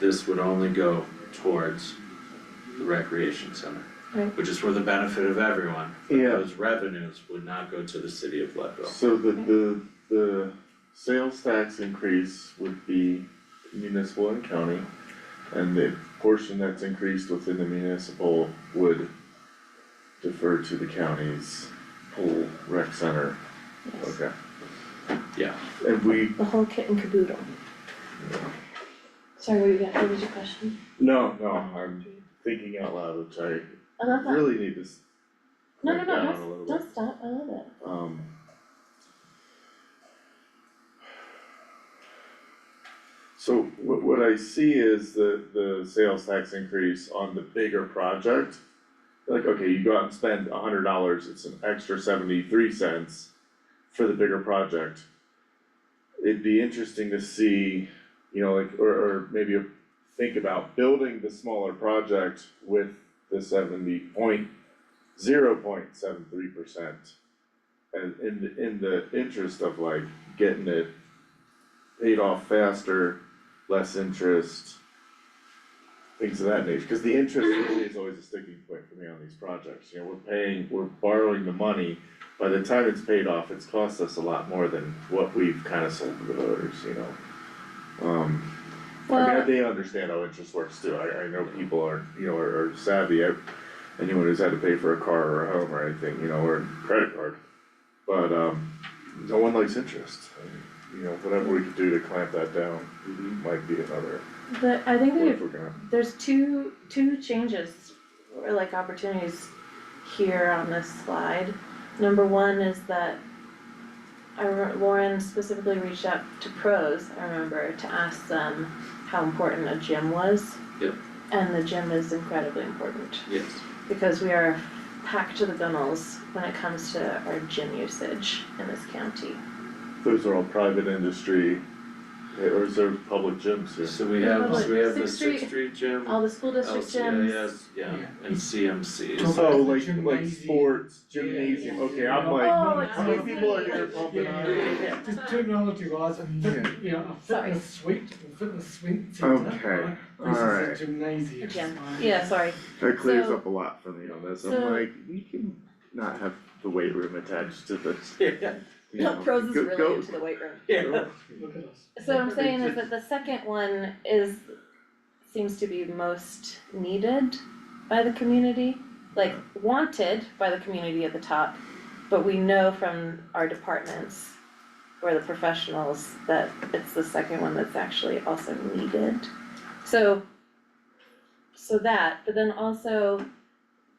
this would only go towards the recreation center. Right. Which is for the benefit of everyone. but Yeah. Those revenues would not go to the city of Leadville. So the, the, the sales tax increase would be municipal and county. And the portion that's increased within the municipal would defer to the county's whole rec center, yes, okay? Yeah. And we, the whole kit and caboodle. Sorry, what you got, what was your question? no, no, I'm thinking out loud, which I I love that, really need to s- no, no, break no, down don't, a little s- bit. don't stop, I love it, Um. So what what I see is the the sales tax increase on the bigger project. Like, okay, you go out and spend a hundred dollars, it's an extra seventy-three cents for the bigger project. It'd be interesting to see, you know, like, or or maybe think about building the smaller project with the seventy point, zero point seven three percent. And in the, in the interest of like getting it paid off faster, less interest. Things of that nature, cause the interest really is always a sticking point for me on these projects, you know, we're paying, we're borrowing the money. By the time it's paid off, it's cost us a lot more than what we've kinda sold to the voters, you know? Um. I mean, well, they understand how interest works too, I, I know people are, you know, are are savvy, I, anyone who's had to pay for a car or a home or anything, you know, or a credit card. But, um, no one likes interest, and, you know, whatever we could do to clamp that down might be another, the, I think what that if we're gonna, there's two, two changes, or like opportunities here on this slide. Number one is that I re- Lauren specifically reached out to pros, I remember, to ask them how important a gym was. Yep. And the gym is incredibly important. Yes. because we are packed to the gunnels when it comes to our gym usage in this county. those are all private industry, eh, or is there public gyms here? So we Yeah, have, but so we have the Sixth Street- Sixth Street Gym, All the school district gyms. LCIS, Oh, yeah, Yeah. and CMCs. So like, like Gymnasium. sports, gymnasium, yeah. okay, I'm like, Oh, how many excuse people are me. here pumping Yeah, on? yeah, yeah. Just terminology wise, a fit, you know, a Sorry. fitness suite, a fitness suite centre, Okay, right, alright. versus a gymnasium. A gym. right? Yeah, sorry, That clears So- up a lot for me on this, I'm so- like, you can not have the weight room attached to this, Yeah. you know, pros is go- really go- into the weight room. Yeah. Look at us. So what I'm saying is that the second one is, seems to be most needed by the community, like wanted by the community at the top. But we know from our departments, or the professionals, that it's the second one that's actually also needed. So, so that, but then also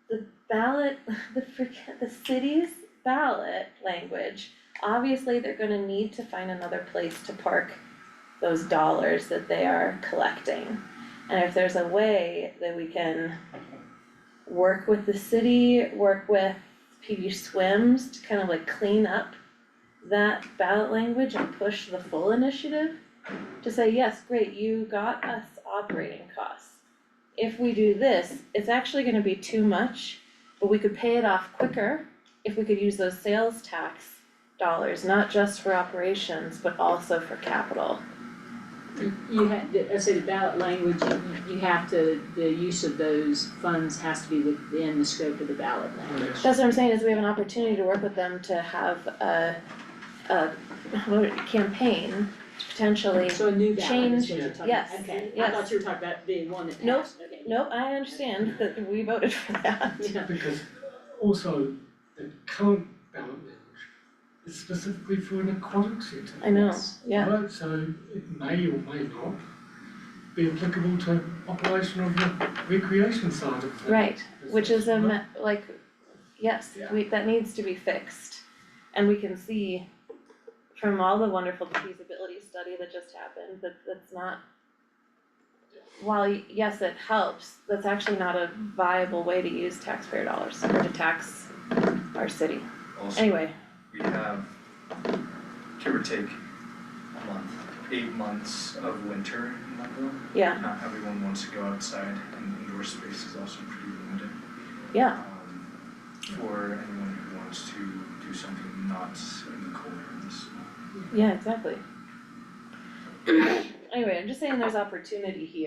the ballot, the freaking, the city's ballot language. Obviously, they're gonna need to find another place to park those dollars that they are collecting. And if there's a way that we can work with the city, work with PB Swims to kind of like clean up that ballot language and push the full initiative to say, yes, great, you got us operating costs. If we do this, it's actually gonna be too much, but we could pay it off quicker if we could use those sales tax dollars, not just for operations, but also for capital. You- You have, I say the ballot language, you, you have to, the use of those funds has to be within the scope of the ballot language. That's what I'm saying, is we have an opportunity to work with them to have a, a, what, a campaign to potentially. So a new ballot is what you're talking about, Change, okay, I yes, thought you were talking about the one that Nope, passed, okay. Nope, I understand that we voted for that. Yeah. Because also, the current ballot language is specifically for an aquatic centre. I know, yeah, Right, so it may or may not be applicable to operation of the recreation side of things. right, which is a, Right. ma- like, yes, Yeah. we, that needs to be fixed. And we can see from all the wonderful feasibility study that just happened, that that's not. While, y- yes, it helps, that's actually not a viable way to use taxpayer dollars, or to tax our city. Also, Anyway, we have, give or take, a month, eight months of winter in Leadville. yeah, Not everyone wants to go outside and indoor space is also pretty limited. Yeah. Um, For anyone who wants to do something not in the cold or in the snow. yeah, exactly. Anyway, I'm just saying there's opportunity here.